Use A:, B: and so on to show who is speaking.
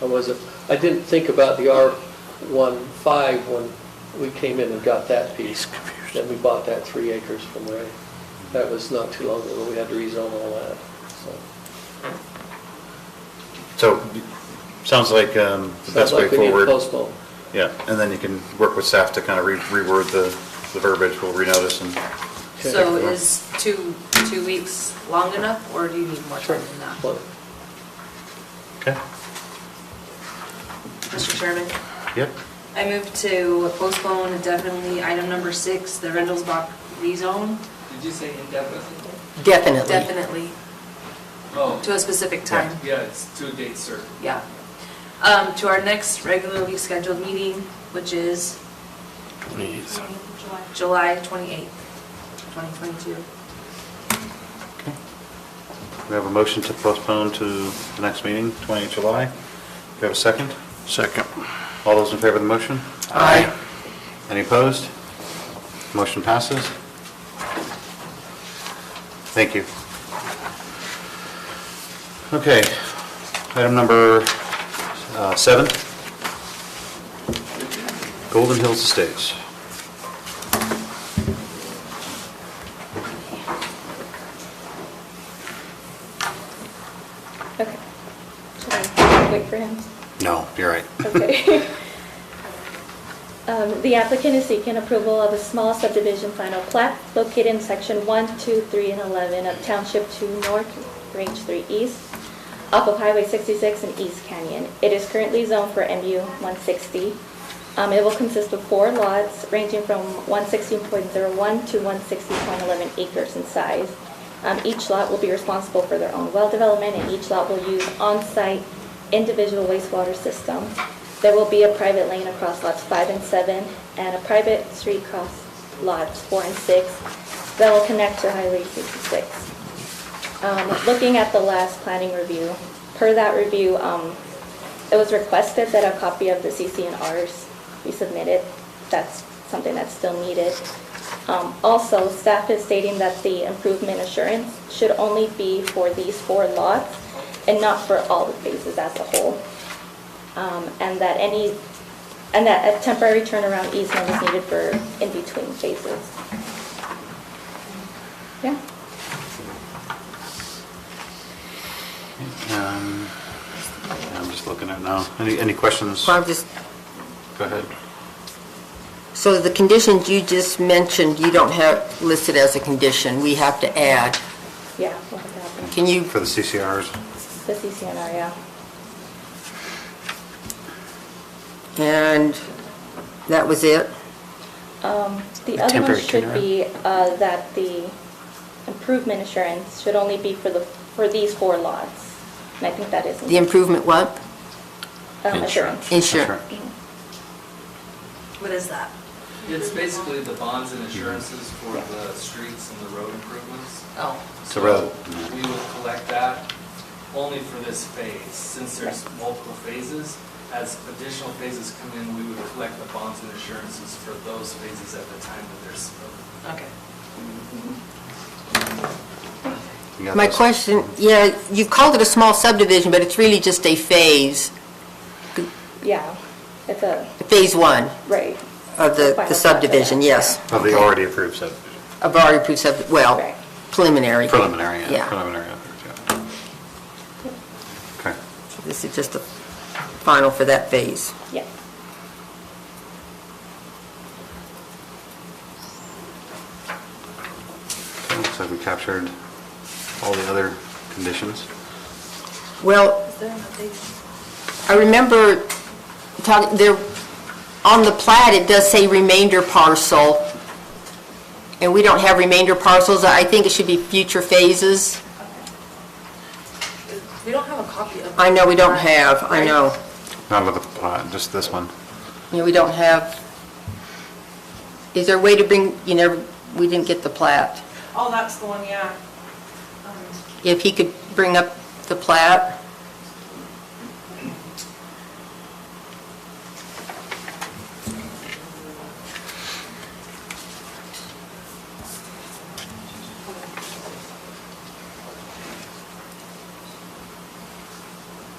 A: I wasn't, I didn't think about the R-15 when we came in and got that piece. Then we bought that three acres from Ray. That was not too long ago, we had to rezone all that, so.
B: So, sounds like um, the best
A: Sounds
B: way
A: like we need to
B: forward.
A: Postpone.
B: Yeah, and then you can work with staff to kind of reword the the verbiage, we'll renotice and.
C: So is two, two weeks long enough, or do you need more time than that?
A: Well,
B: Okay,
C: Mr. Chairman,
B: yep.
C: I move to postpone indefinitely item number six, the Rendelsbach rezone,
D: Did you say indefinitely?
E: Definitely.
C: definitely,
D: Oh,
C: to a specific time.
D: yeah, it's to a date certain.
C: Yeah. Um, To our next regularly scheduled meeting, which is July 28th, 2022.
B: We have a motion to postpone to the next meeting, 28 July. Do you have a second?
F: Second.
B: All those in favor of the motion?
F: Aye.
B: Any opposed? Motion passes. Thank you. Okay, item number uh, seven. Golden Hills Estates.
G: Okay. Should I wait for him?
B: No, you're right.
G: Okay. Um, The applicant is seeking approval of a small subdivision final plat located in section 1, 2, 3, and 11 of Township 2 North, Range 3 East, off of Highway 66 in East Canyon. It is currently zoned for MU 160. Um, It will consist of four lots ranging from 116.01 to 160.11 acres in size. Um, Each lot will be responsible for their own well development, and each lot will use on-site individual wastewater system. There will be a private lane across lots five and seven, and a private street across lots four and six that will connect to Highway 66. Um, Looking at the last planning review, per that review, um, it was requested that a copy of the CCNRs be submitted. That's something that's still needed. Um, Also, staff is stating that the improvement assurance should only be for these four lots and not for all the phases as a whole. Um, And that any, and that a temporary turnaround easement is needed for in-between phases. Yeah?
B: Um, I'm just looking at now. Any, any questions?
E: Well, I'm just,
B: Go ahead.
E: so the conditions you just mentioned, you don't have listed as a condition, we have to add.
G: Yeah, we'll have to have them.
E: Can you,
B: For the CCRs,
G: The CCNR, yeah.
E: and that was it?
G: Um, The
B: A
G: other one
B: temporary
G: should
B: turnaround.
G: be uh, that the improvement assurance should only be for the, for these four lots. And I think that is.
E: The improvement what?
G: um, Assurance.
E: Insurance.
C: What is that?
D: It's basically the bonds and assurances for the streets and the road improvements.
C: Oh.
B: So rather-
D: We would collect that only for this phase. Since there's multiple phases, as additional phases come in, we would collect the bonds and assurances for those phases at the time that there's.
C: Okay.
B: You got
E: My
B: this?
E: question, yeah, you called it a small subdivision, but it's really just a phase,
G: Yeah, it's a,
E: phase one
G: right,
E: of the
G: Final plot,
E: the subdivision,
G: yeah.
E: yes.
B: Of the Oh, already approved subdivision.
E: Of our approved sub, well,
G: Right.
E: preliminary.
B: Preliminary, yeah,
E: Yeah,
B: preliminary. yeah. Okay.
E: So this is just the final for that phase.
G: yeah.
B: Looks like we captured all the other conditions.
E: Well,
C: Is there an update?
E: I remember talking, there, on the plat, it does say remainder parcel, and we don't have remainder parcels. I think it should be future phases.
C: We don't have a copy of.
E: I know we don't have, I
C: Right.
E: know.
B: Not with the plot, just this one.
E: You know, we don't have, is there a way to bring, you never, we didn't get the plat.
H: Oh, that's the one, yeah. Um,
E: If he could bring up the plat,